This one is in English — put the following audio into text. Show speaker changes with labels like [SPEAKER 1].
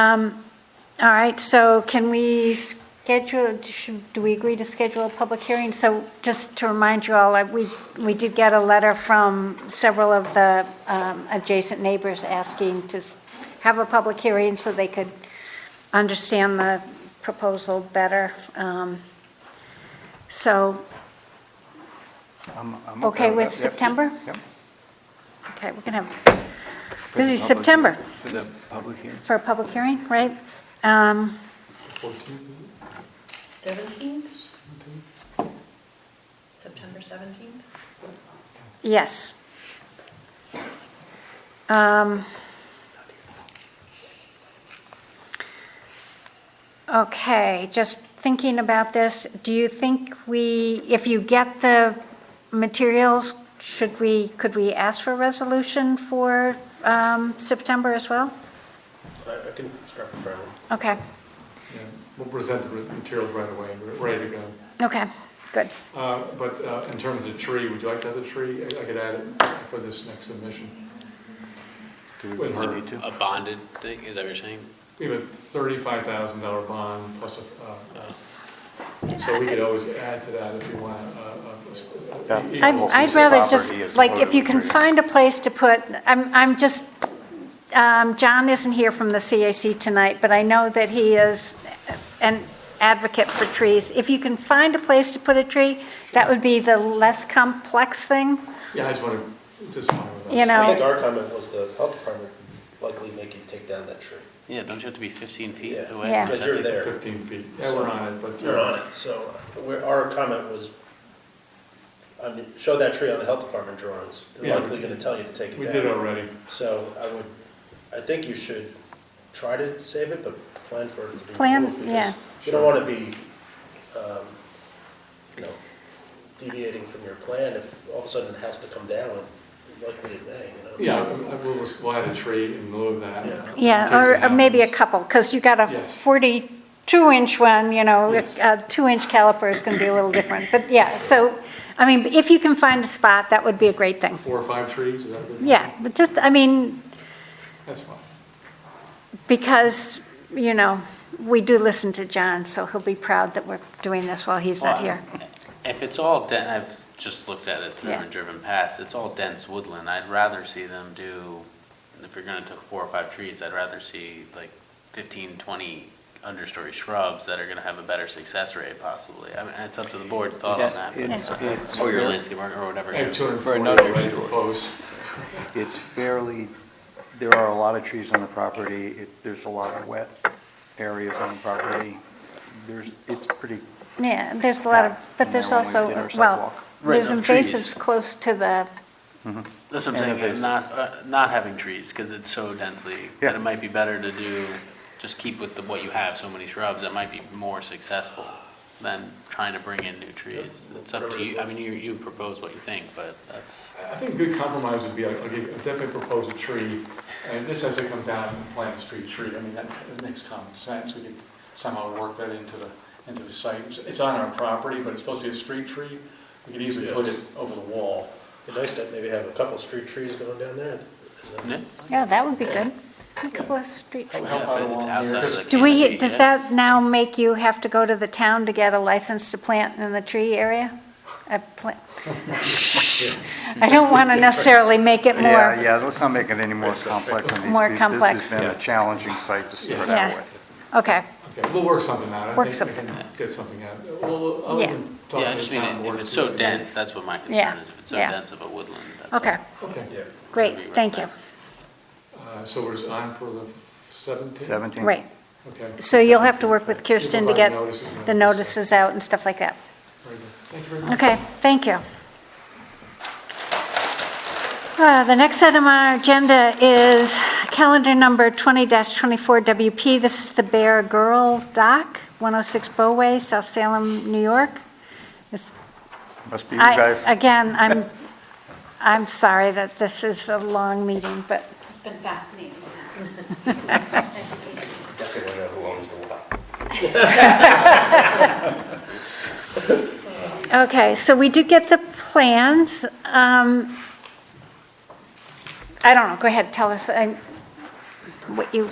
[SPEAKER 1] Um, All right, so can we schedule, should- do we agree to schedule a public hearing? So just to remind you all, I- we, we did get a letter from several of the um, adjacent neighbors asking to s- have a public hearing so they could understand the proposal better. Um, So,
[SPEAKER 2] I'm- I'm
[SPEAKER 1] Okay
[SPEAKER 2] with
[SPEAKER 1] with
[SPEAKER 2] that. Yep.
[SPEAKER 1] September?
[SPEAKER 2] Yep.
[SPEAKER 1] okay, we're going to have, this is September
[SPEAKER 2] For the public hearing.
[SPEAKER 1] for a public hearing, right? Um,
[SPEAKER 3] Seventeenth? September seventeenth?
[SPEAKER 1] Yes. Um, Okay, just thinking about this, do you think we, if you get the materials, should we, could we ask for a resolution for um, September as well?
[SPEAKER 4] I I can start from Brown.
[SPEAKER 1] Okay,
[SPEAKER 5] Yeah, We'll present the materials right away, we're ready to go.
[SPEAKER 1] okay, good.
[SPEAKER 5] Uh, But uh, in terms of the tree, would you like to have the tree? I I could add it for this next submission.
[SPEAKER 2] Do we
[SPEAKER 5] Wait,
[SPEAKER 2] really
[SPEAKER 5] her-
[SPEAKER 2] need to?
[SPEAKER 4] A bonded thing, is that what you're saying?
[SPEAKER 5] We have a thirty-five thousand dollar bond plus a, uh, so we could always add to that if you want. uh, uh,
[SPEAKER 2] Yeah.
[SPEAKER 5] e-
[SPEAKER 1] I'd
[SPEAKER 5] equal-
[SPEAKER 1] I'd
[SPEAKER 2] piece of
[SPEAKER 1] rather
[SPEAKER 2] property
[SPEAKER 1] just,
[SPEAKER 2] as
[SPEAKER 1] like,
[SPEAKER 2] opposed
[SPEAKER 1] if you
[SPEAKER 2] to
[SPEAKER 1] can
[SPEAKER 2] three.
[SPEAKER 1] find a place to put, I'm, I'm just, um, John isn't here from the CAC tonight, but I know that he is an advocate for trees. If you can find a place to put a tree, that would be the less complex thing,
[SPEAKER 5] Yeah, I just want to, just fine with that.
[SPEAKER 1] you
[SPEAKER 6] I think
[SPEAKER 1] know?
[SPEAKER 6] our comment was the health department likely may can take down that tree.
[SPEAKER 4] Yeah, don't you have to be 15 feet
[SPEAKER 6] Yeah.
[SPEAKER 4] away?
[SPEAKER 1] Yeah.
[SPEAKER 4] Is
[SPEAKER 6] Because
[SPEAKER 4] that
[SPEAKER 6] you're
[SPEAKER 4] the-
[SPEAKER 6] there,
[SPEAKER 5] Fifteen feet, yeah, we're on it, but.
[SPEAKER 6] you're on it, uh, so we're, our comment was, I mean, show that tree on the health department drawings.
[SPEAKER 5] Yeah.
[SPEAKER 6] They're likely gonna tell you to take
[SPEAKER 5] We
[SPEAKER 6] it
[SPEAKER 5] did
[SPEAKER 6] down.
[SPEAKER 5] already.
[SPEAKER 6] So I would, I think you should try to save it, but plan for it to be
[SPEAKER 1] Plan,
[SPEAKER 6] removed. because
[SPEAKER 1] yeah.
[SPEAKER 6] You don't wanna be, um, you know, deviating from your plan if all of a sudden it has to come down, likely it may, you know?
[SPEAKER 5] Yeah, I- I- we'll just, we'll add a tree in lieu of that.
[SPEAKER 6] Yeah.
[SPEAKER 5] in case
[SPEAKER 1] Yeah,
[SPEAKER 5] it
[SPEAKER 1] or- or maybe a
[SPEAKER 5] happens.
[SPEAKER 1] couple, because you got a
[SPEAKER 5] Yes.
[SPEAKER 1] 42-inch one, you know,
[SPEAKER 5] Yes.
[SPEAKER 1] a two-inch caliper is going to be a little different. But yeah, so, I mean, if you can find a spot, that would be a great thing.
[SPEAKER 5] Four or five trees, is that what?
[SPEAKER 1] Yeah, but just, I mean,
[SPEAKER 5] That's fine.
[SPEAKER 1] because, you know, we do listen to John, so he'll be proud that we're doing this while he's not here.
[SPEAKER 4] Well, If it's all den, I've just looked at it through
[SPEAKER 1] Yeah.
[SPEAKER 4] and driven past, it's all dense woodland. I'd rather see them do, if you're gonna take four or five trees, I'd rather see like 15, 20 understory shrubs that are gonna have a better success rate possibly. I mean, it's up to the board's thought on that. but-
[SPEAKER 2] It's, it's,
[SPEAKER 4] Or your
[SPEAKER 2] fair-
[SPEAKER 4] landscape or whatever.
[SPEAKER 5] I have two hundred and
[SPEAKER 2] For
[SPEAKER 5] forty
[SPEAKER 2] another
[SPEAKER 5] already
[SPEAKER 2] story.
[SPEAKER 5] proposed.
[SPEAKER 2] it's fairly, there are a lot of trees on the property, It- there's a lot of wet areas on the property. There's, it's pretty,
[SPEAKER 1] Yeah, there's a lot of, but
[SPEAKER 2] And
[SPEAKER 1] there's
[SPEAKER 2] then when we
[SPEAKER 1] also,
[SPEAKER 2] did our
[SPEAKER 1] well,
[SPEAKER 2] sidewalk. Right,
[SPEAKER 1] there's
[SPEAKER 2] no,
[SPEAKER 1] invasives
[SPEAKER 2] trees.
[SPEAKER 1] close to the,
[SPEAKER 4] That's what I'm
[SPEAKER 2] And
[SPEAKER 4] saying,
[SPEAKER 2] invasive.
[SPEAKER 4] uh, not, uh, not having trees, because it's so densely,
[SPEAKER 2] Yeah.
[SPEAKER 4] that it might be better to do, just keep with the, what you have, so many shrubs, that might be more successful than trying to bring in new trees. It's up to you, I mean, you, you propose what you think, but that's,
[SPEAKER 5] I think a good compromise would be, I'll I'll give, I'll definitely propose a tree, and this has to come down and plant a street tree. I mean, that, that makes common sense, we could somehow work that into the, into the site. It's, it's on our property, but it's supposed to be a street tree, we could easily put it over the wall.
[SPEAKER 6] It'd be nice to maybe have a couple street trees going down there. and then-
[SPEAKER 4] yeah.
[SPEAKER 1] yeah, that would be good. A couple of street
[SPEAKER 5] Help
[SPEAKER 1] trees.
[SPEAKER 5] help out
[SPEAKER 4] If it's
[SPEAKER 5] along here,
[SPEAKER 4] outside of
[SPEAKER 5] 'cause
[SPEAKER 4] the
[SPEAKER 1] Do we,
[SPEAKER 4] canopy,
[SPEAKER 1] does
[SPEAKER 4] yeah.
[SPEAKER 1] that now make you have to go to the town to get a license to plant in the tree area? A pla- I don't want to necessarily make it
[SPEAKER 2] yeah,
[SPEAKER 1] more,
[SPEAKER 2] yeah, let's not make it any more complex on these.
[SPEAKER 1] More
[SPEAKER 2] people.
[SPEAKER 1] complex.
[SPEAKER 2] This has been a challenging site to start
[SPEAKER 1] Yeah.
[SPEAKER 2] out with.
[SPEAKER 1] okay,
[SPEAKER 5] Okay, we'll work something out. I
[SPEAKER 1] Work
[SPEAKER 5] think we
[SPEAKER 1] something
[SPEAKER 5] can
[SPEAKER 4] out.
[SPEAKER 5] Get something out. Well, I'll
[SPEAKER 1] Yeah.
[SPEAKER 5] even talk
[SPEAKER 4] Yeah, I
[SPEAKER 5] to
[SPEAKER 4] just
[SPEAKER 5] the
[SPEAKER 4] mean,
[SPEAKER 5] town
[SPEAKER 4] if
[SPEAKER 5] board
[SPEAKER 4] it's
[SPEAKER 5] to
[SPEAKER 4] so
[SPEAKER 5] see-
[SPEAKER 4] dense, that's what my
[SPEAKER 1] Yeah,
[SPEAKER 4] concern is, if it's so
[SPEAKER 1] yeah.
[SPEAKER 4] dense of a woodland. that's all.
[SPEAKER 1] okay,
[SPEAKER 5] Okay,
[SPEAKER 6] Yeah.
[SPEAKER 1] great, thank you.
[SPEAKER 5] uh, so we're on for the seventeenth?
[SPEAKER 2] Seventeen.
[SPEAKER 1] Right,
[SPEAKER 5] Okay.
[SPEAKER 1] so you'll have to work with
[SPEAKER 5] You'll
[SPEAKER 1] Kirsten to
[SPEAKER 5] provide
[SPEAKER 1] get
[SPEAKER 5] notices and
[SPEAKER 1] the
[SPEAKER 5] everything, so-
[SPEAKER 1] notices out and stuff like that.
[SPEAKER 5] Very good. Thank you very much.
[SPEAKER 1] Okay, thank you. Uh, The next item on our agenda is calendar number 20-24 WP. This is the Bear Girl Dock, 106 Bowway, South Salem, New York. It's-
[SPEAKER 2] Must be you
[SPEAKER 1] I-
[SPEAKER 2] guys.
[SPEAKER 1] Again, I'm, I'm sorry that this is a long meeting, but
[SPEAKER 7] It's been fascinating. Education.
[SPEAKER 6] Definitely know who owns the lot.
[SPEAKER 1] Okay, so we did get the plans. um, I don't know, go ahead, tell us um, what you